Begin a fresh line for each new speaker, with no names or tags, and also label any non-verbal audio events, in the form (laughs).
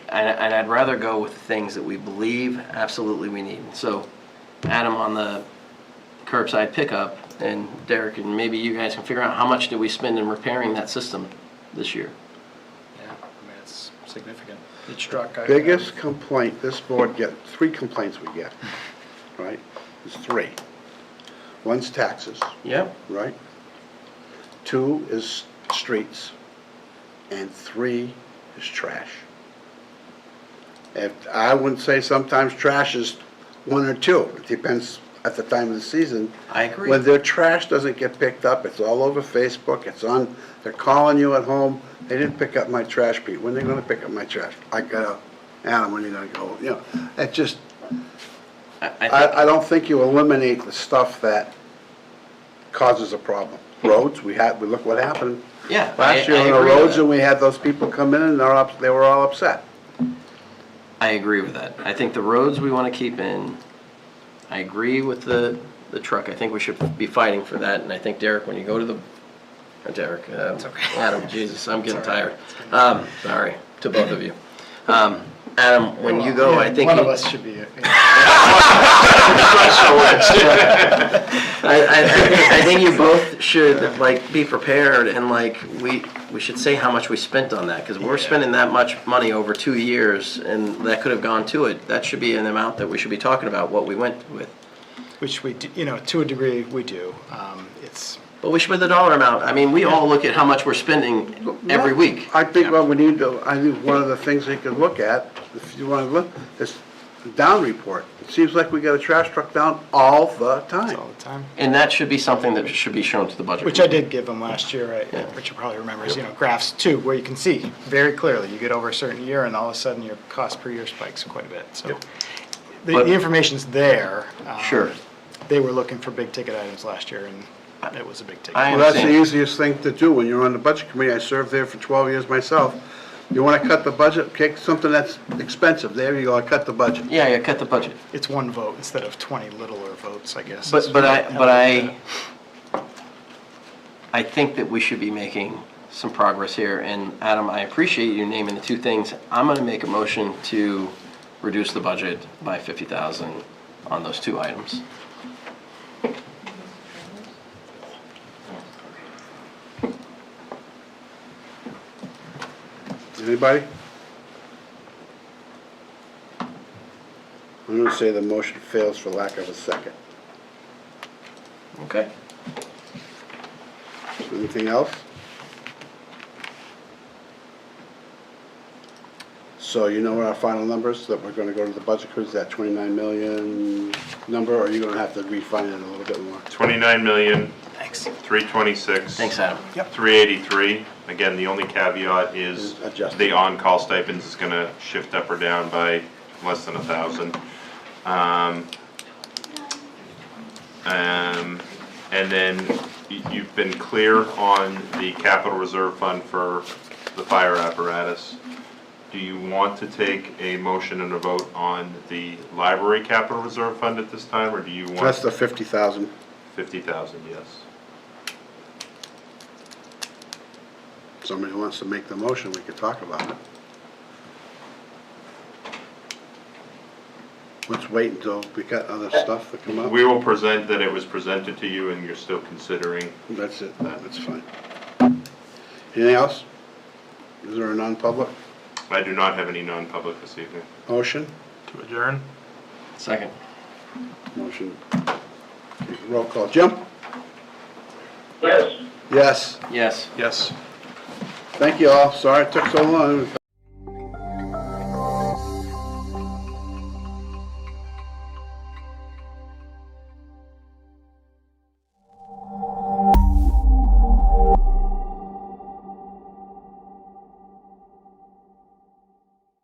and, and I'd rather go with the things that we believe absolutely we need. So, Adam on the curbside pickup, and Derek, and maybe you guys can figure out how much did we spend in repairing that system this year?
Yeah, I mean, it's significant.
Each truck. I-
Biggest complaint this board get, three complaints we get, right? There's three. One's taxes,
Yep.
right? Two is streets, and three is trash. And I wouldn't say sometimes trash is one or two, it depends at the time of the season.
I agree.
When their trash doesn't get picked up, it's all over Facebook, it's on, they're calling you at home, they didn't pick up my trash, Pete, when are they gonna pick up my trash? I got, Adam, when are you gonna go, you know, it just,
I, I think,
I, I don't think you eliminate the stuff that causes a problem. Roads, we had, we look what happened.
yeah. I-
Last year
I
on the
agree with
roads,
that.
and we had those people come in and they're up, they were all upset.
I agree with that. I think the roads we want to keep in. I agree with the, the truck. I think we should be fighting for that, and I think Derek, when you go to the, uh, Derek, um, (laughs) Adam, Jesus, I'm getting tired. Um, sorry, to both of you. Um, Adam, when you go, I think.
One
you-
of us should be.
I, I, I think- I think you both should, like, be prepared and, like, we, we should say how much we spent on that, because we're spending that much money over two years, and that could have gone to it. That should be an amount that we should be talking about, what we went with.
Which we, do- you know, to a degree, we do. Um, It's,
But we should put the dollar amount, I mean, we all look at how much we're spending every week.
I think what we need to, I think one of the things they could look at, if you wanna look, is the down report. It seems like we got a trash truck down all the
it's
time.
all the time.
And that should be something that should be shown to the budget.
Which I
committee.
did give them last year, right,
Yeah.
which you probably remember, is, you know, graphs too, where you can see very clearly, you get over a certain year and all of a sudden your cost per year spikes quite a bit, so. The,
But-
the information's there. um,
Sure.
They were looking for big ticket items last year and it was a big ticket.
I-
Well, that's the
understand.
easiest thing to do when you're on the budget committee. I served there for 12 years myself. You want to cut the budget, pick something that's expensive. There you go, I cut the budget.
Yeah, yeah, cut the budget.
It's one vote instead of twenty littler votes, I guess.
But,
is
but I,
how
but
I look
I, I think that we should be making some progress here, and Adam, I appreciate you naming the two things. I'm gonna make a motion to reduce the budget by fifty thousand on those two items.
Anybody? I'm going to say the motion fails for lack of a second.
Okay.
Anything else? So you know what our final numbers that we're going to go to the budget crew is that 29 million number, or are you going to have to refine it a little bit more?
Twenty-nine million,
at it. Thanks.
three twenty-six.
Thanks, Adam.
Three eighty-three. Again, the only caveat is
Is adjusted.
the on-call stipends is gonna shift up or down by less than a thousand. Um, um, and then y- you've been clear on the capital reserve fund for the fire apparatus. Do you want to take a motion and a vote on the library capital reserve fund at this time, or do you want?
That's the 50,000.
Fifty thousand, yes.
Somebody wants to make the motion, we could talk about it. Let's wait until we got other stuff that come up.
We will present that it was presented to you and you're still considering.
That's it, that's fine. Anything else? Is there a non-public
I do not have any non-public this evening.
motion?
To adjourn?
Second.
Motion. Roll call. Jim?
Yes.
Yes.
Yes.
Yes.
Thank you all. Sorry it took so long.